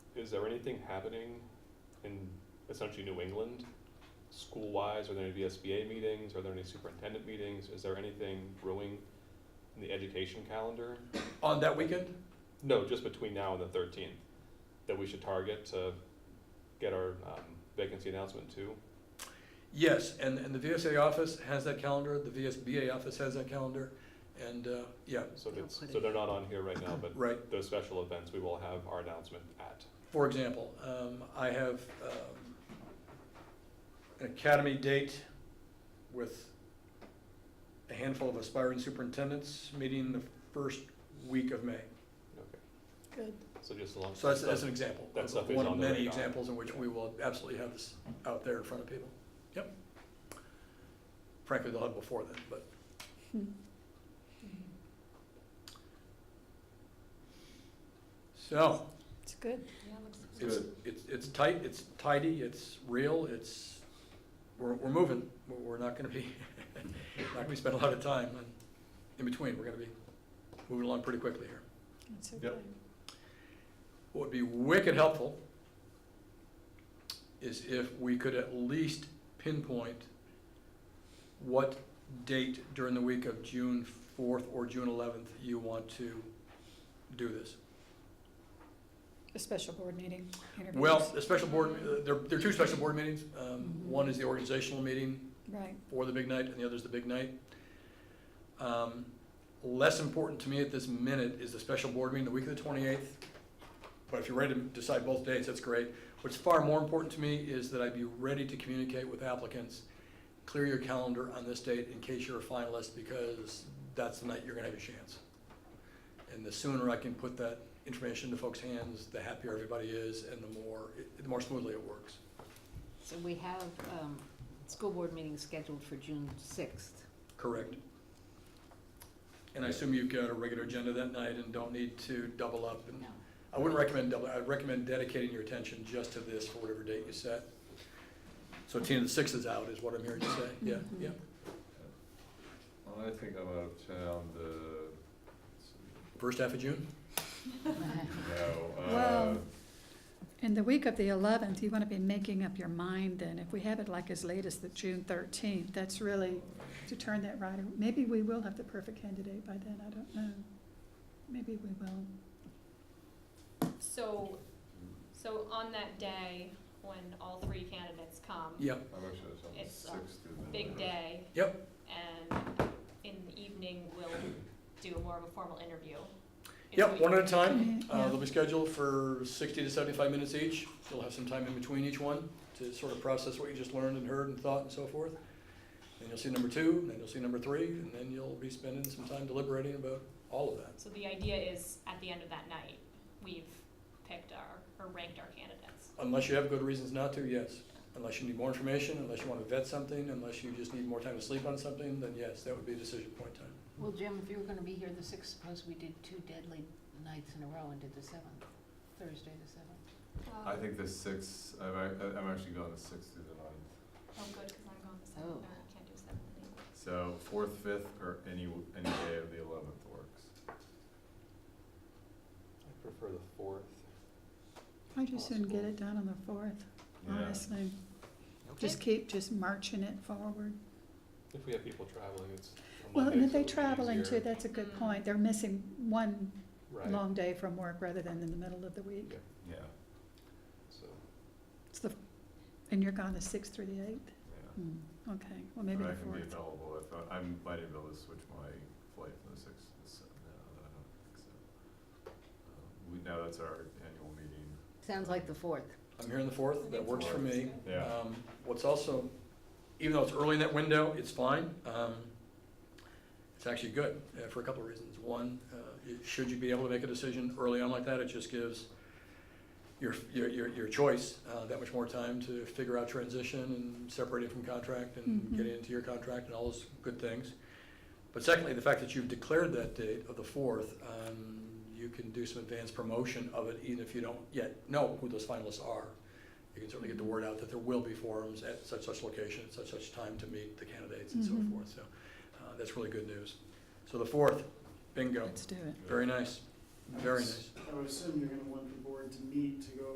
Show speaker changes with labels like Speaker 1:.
Speaker 1: is there anything happening in essentially New England, school-wise? Are there any VSBA meetings? Are there any superintendent meetings? Is there anything brewing in the education calendar?
Speaker 2: On that weekend?
Speaker 1: No, just between now and the thirteenth, that we should target to get our um, vacancy announcement to.
Speaker 2: Yes, and, and the VSA office has that calendar, the VSBA office has that calendar, and, uh, yeah,
Speaker 1: So
Speaker 3: They'll
Speaker 1: it's,
Speaker 3: put
Speaker 1: so
Speaker 3: it-
Speaker 1: they're not on here right now, but
Speaker 2: right.
Speaker 1: those special events, we will have our announcement at.
Speaker 2: For example, um, I have, um, an academy date with a handful of aspiring superintendents meeting the first week of May.
Speaker 3: Good.
Speaker 1: So just along.
Speaker 2: So that's, that's an example.
Speaker 1: That stuff is
Speaker 2: One of
Speaker 1: on the
Speaker 2: many
Speaker 1: radar.
Speaker 2: examples in which we will absolutely have this out there in front of people. Yep. Frankly, they'll have before then, but. So,
Speaker 3: It's good.
Speaker 2: it's, it's, it's tight, it's tidy, it's real, it's, we're, we're moving. We're- We're not gonna be, not gonna be spending a lot of time in- in between. We're gonna be moving along pretty quickly here.
Speaker 3: It's
Speaker 2: Yep. What would be wicked helpful is if we could at least pinpoint what date during the week of June fourth or June eleventh you want to do this.
Speaker 3: A special board meeting. interviews.
Speaker 2: Well, the special board, uh, there, there are two special board meetings. Um, one is the organizational meeting
Speaker 3: Right,
Speaker 2: for the big night, and the other's the big night. Um, Less important to me at this minute is the special board meeting the week of the twenty-eighth. But if you're ready to decide both dates, that's great. What's far more important to me is that I be ready to communicate with applicants. Clear your calendar on this date in case you're a finalist, because that's the night you're gonna have your chance. And the sooner I can put that information into folks' hands, the happier everybody is, and the more, the more smoothly it works.
Speaker 4: So we have, um, school board meeting scheduled for June sixth.
Speaker 2: Correct. And I assume you've got a regular agenda that night and don't need to double up. and-
Speaker 4: No.
Speaker 2: I wouldn't recommend double, I'd recommend dedicating your attention just to this for whatever date you set. So Tina, the sixth is out, is what I'm hearing you say, yeah, yeah.
Speaker 5: I think I'm out of town uh, the,
Speaker 2: First half of June?
Speaker 5: no, uh,
Speaker 6: Well- In the week of the eleventh, you want to be making up your mind then. If we have it like as late as the June thirteenth, that's really to turn that right. Maybe we will have the perfect candidate by then, I don't know. Maybe we will.
Speaker 7: So, so on that day, when all three candidates come,
Speaker 2: Yeah,
Speaker 5: I'm actually out of town the
Speaker 7: It's a
Speaker 5: sixth. through the
Speaker 7: big
Speaker 5: ninth.
Speaker 7: day.
Speaker 2: Yep.
Speaker 7: And in the evening, we'll do more of a formal interview. If
Speaker 2: yep,
Speaker 7: we-
Speaker 2: one at a time.
Speaker 6: Mhm,
Speaker 2: Uh,
Speaker 6: yeah.
Speaker 2: they'll be scheduled for sixty to seventy-five minutes each. You'll have some time in between each one to sort of process what you just learned and heard and thought and so forth. Then you'll see number two, and then you'll see number three, and then you'll be spending some time deliberating about all of that.
Speaker 7: So the idea is, at the end of that night, we've picked our, or ranked our candidates.
Speaker 2: Unless you have good reasons not to, yes. Unless you need more information, unless you want to vet something, unless you just need more time to sleep on something, then yes, that would be a decision point time.
Speaker 4: Well, Jim, if you were gonna be here the sixth, suppose we did two deadly nights in a row and did the seventh, Thursday the seventh.
Speaker 5: I think the sixth, I'm, ac- I'm actually going the sixth through the ninth,
Speaker 7: Oh, good, because I'm going the seventh,
Speaker 4: Oh.
Speaker 7: and I can't do seventh anymore.
Speaker 5: so fourth, fifth, or any, any day of the eleventh works.
Speaker 1: I prefer the fourth.
Speaker 6: I just soon get it done on the fourth,
Speaker 5: Yeah,
Speaker 6: honestly. Just keep just marching it forward.
Speaker 1: If we have people traveling, it's. on
Speaker 6: Well, and
Speaker 1: Mondays,
Speaker 6: if they
Speaker 1: it'll be
Speaker 6: traveling too,
Speaker 1: easier.
Speaker 6: that's a good
Speaker 7: Mm.
Speaker 6: point. They're missing one
Speaker 1: Right,
Speaker 6: long day from work rather than in the middle of the week.
Speaker 5: yeah,
Speaker 1: so,
Speaker 6: It's the, and you're gone the sixth through the eighth?
Speaker 5: yeah.
Speaker 6: Hmm, okay, well, maybe
Speaker 5: But
Speaker 6: the
Speaker 5: I can be
Speaker 6: fourth.
Speaker 5: available if, I- I'm, might be able to switch my flight from the sixth to the seventh, no, I don't think so. Um, We, now that's our annual meeting,
Speaker 4: Sounds like the fourth.
Speaker 2: I'm hearing the fourth, that works for me.
Speaker 5: yeah.
Speaker 2: Um, what's also, even though it's early in that window, it's fine. Um, it's actually good uh, for a couple of reasons. One, uh, it- should you be able to make a decision early on like that, it just gives your, your, your, your choice uh, that much more time to figure out transition and separating from contract and
Speaker 6: Mhm.
Speaker 2: getting into your contract and all those good things. But secondly, the fact that you've declared that date of the fourth, um, you can do some advanced promotion of it, even if you don't yet know who those finalists are. You can certainly get the word out that there will be forums at such such location, at such such time to meet the candidates and so
Speaker 6: Mhm.
Speaker 2: forth. So uh, that's really good news. So the fourth, bingo.
Speaker 6: Let's do it.
Speaker 2: Very nice. Very nice.
Speaker 8: I would assume you're gonna want the board to meet to go